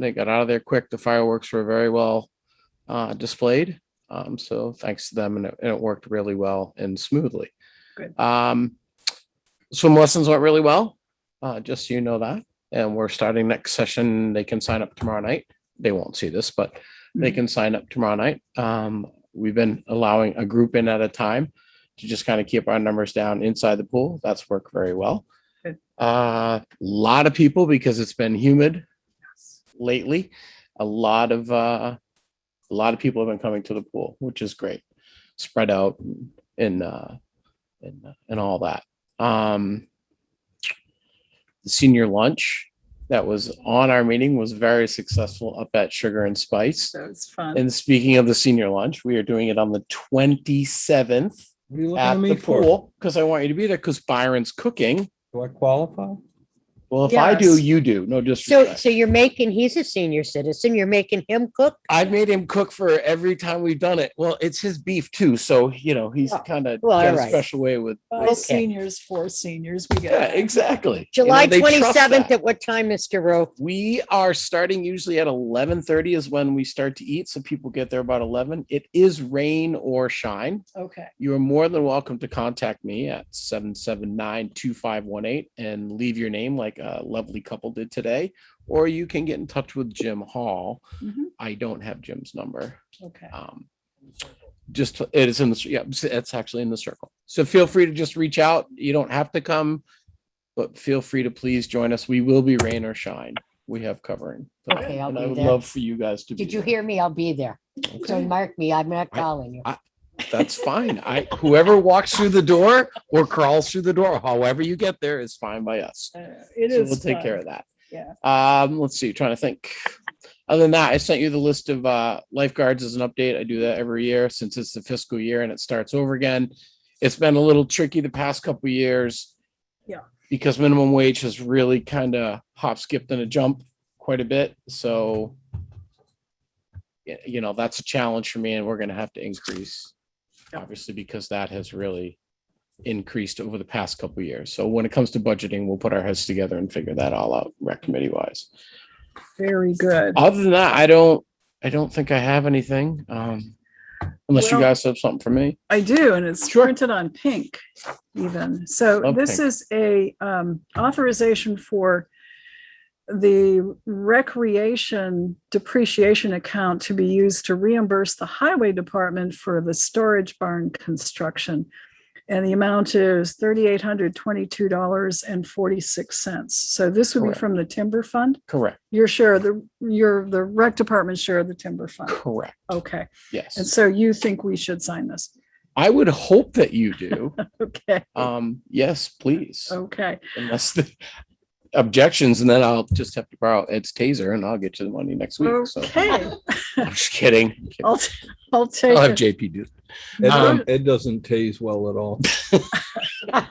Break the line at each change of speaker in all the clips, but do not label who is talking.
they got out of there quick. The fireworks were very well uh, displayed. Um, so thanks to them and it, and it worked really well and smoothly.
Good.
Um, swim lessons went really well, uh, just so you know that. And we're starting next session. They can sign up tomorrow night. They won't see this, but they
Mhm.
can sign up tomorrow night. Um, we've been allowing a group in at a time to just kind of keep our numbers down inside the pool. That's worked very well.
Good.
A lot of people because it's been humid lately. A lot of uh, a lot of people have been coming to the pool, which is great. Spread out and uh, and and all that. Um, the senior lunch that was on our meeting was very successful up at Sugar and Spice.
So it's fun.
And speaking of the senior lunch, we are doing it on the twenty seventh
What are you looking
at
at
the
me for?
pool because I want you to be there because Byron's cooking.
Do I qualify?
Well, if I do,
Yes.
you do. No
So,
disrespect.
so you're making, he's a senior citizen, you're making him cook?
I've made him cook for every time we've done it. Well, it's his beef too, so you know he's
Oh,
kind of
well,
got a
alright.
special way with.
Five seniors, four seniors, we
Yeah,
get. it.
exactly. You know,
July
they trust that.
twenty-seventh, at what time, Mr. Rowe?
we are starting usually at 11:30 is when we start to eat so people get there about 11 it is rain or shine
Okay,
you are more than welcome to contact me at 779-2518 and leave your name like a lovely couple did today or you can get in touch with jim hall
Mhm.
i don't have jim's number
okay. Uh,
um just it is in the yeah it's- it's actually in the circle so feel free to just reach out you don't have to come but feel free to please join us we will be rain or shine we have covering So,
Okay, I'll
and i
be
would
there.
love for you guys to be
Did you
there.
hear me? I'll be there. So mark me, I'm not
I-
calling you.
that's fine i whoever walks through the door or crawls through the door however you get there is fine by us
Uh, It
so
is.
we'll take care
fun.
of that
Yeah.
um let's see trying to think other than that i sent you the list of uh lifeguards as an update i do that every year since it's the fiscal year and it starts over again it's been a little tricky the past couple of years
Yeah.
because minimum wage has really kind of hop skipped and a jump quite a bit so y- you know that's a challenge for me and we're going to have to increase
Yeah.
obviously because that has really increased over the past couple of years. So when it comes to budgeting, we'll put our heads together and figure that all out, rec committee wise.
Very good.
Other than that, I don't, I don't think I have anything. Um, unless you
Well-
guys have something for me.
I do, and it's
Sure.
printed on pink even. So
Love
this
pink.
is a um, authorization for the recreation depreciation account to be used to reimburse the highway department for the storage barn construction. And the amount is thirty-eight hundred twenty-two dollars and forty-six cents. So this would be
Correct.
from the timber fund,
Correct,
your share, of the, your, the rec department share of the timber fund.
correct.
Okay, and
Yes.
so you think we should sign this?
I would hope that you do.
Okay.
Um, yes, please.
Oh.
Okay,
Unless the objections and then I'll just have to borrow Ed's taser and I'll get you the money next
Oh.
week. So
okay,
I'm just kidding.
I'll, I'll
I'll have
take it.
JP do
Ed,
Um,
don't- Ed doesn't tase well at all.
Maybe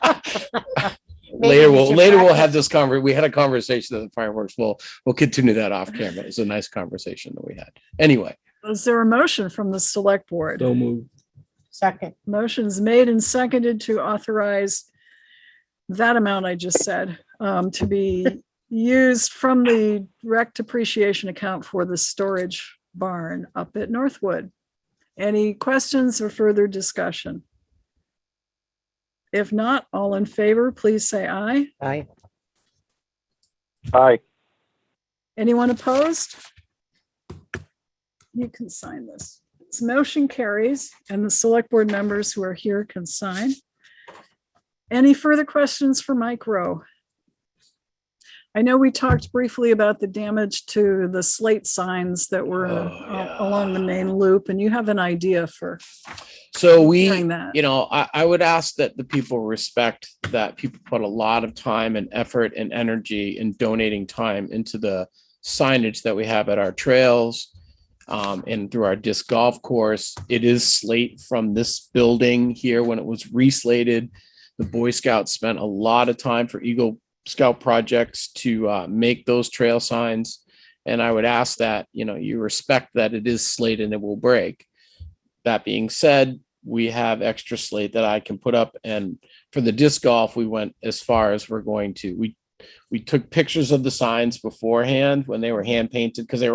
later
we
we'll
should
later we'll
practice.
have this conver we had a conversation of the fireworks we'll we'll continue that off camera it's a nice conversation that we had anyway
Is there a motion from the select board?
So move.
Second,
Motion's made and seconded to authorize that amount I just said, um, to be used from the rec depreciation account for the storage barn up at Northwood. Any questions or further discussion? If not, all in favor, please say aye.
aye.
Anyone opposed? You can sign this. This motion carries and the select board members who are here can sign. Any further questions for Mike Rowe? I know we talked briefly about the damage to the slate signs that were
Oh,
uh,
yeah.
along the main loop and you have an idea for
so we
doing that.
you know I, I would ask that the people respect that people put a lot of time and effort and energy in donating time into the signage that we have at our trails um, and through our disc golf course it is slate from this building here when it was reslated the boy scouts spent a lot of time for eagle scout projects to uh, make those trail signs and i would ask that you know you respect that it is slate and it will break that being said we have extra slate that I can put up. And for the disc golf, we went as far as we're going to, we We took pictures of the signs beforehand when they were hand painted because they were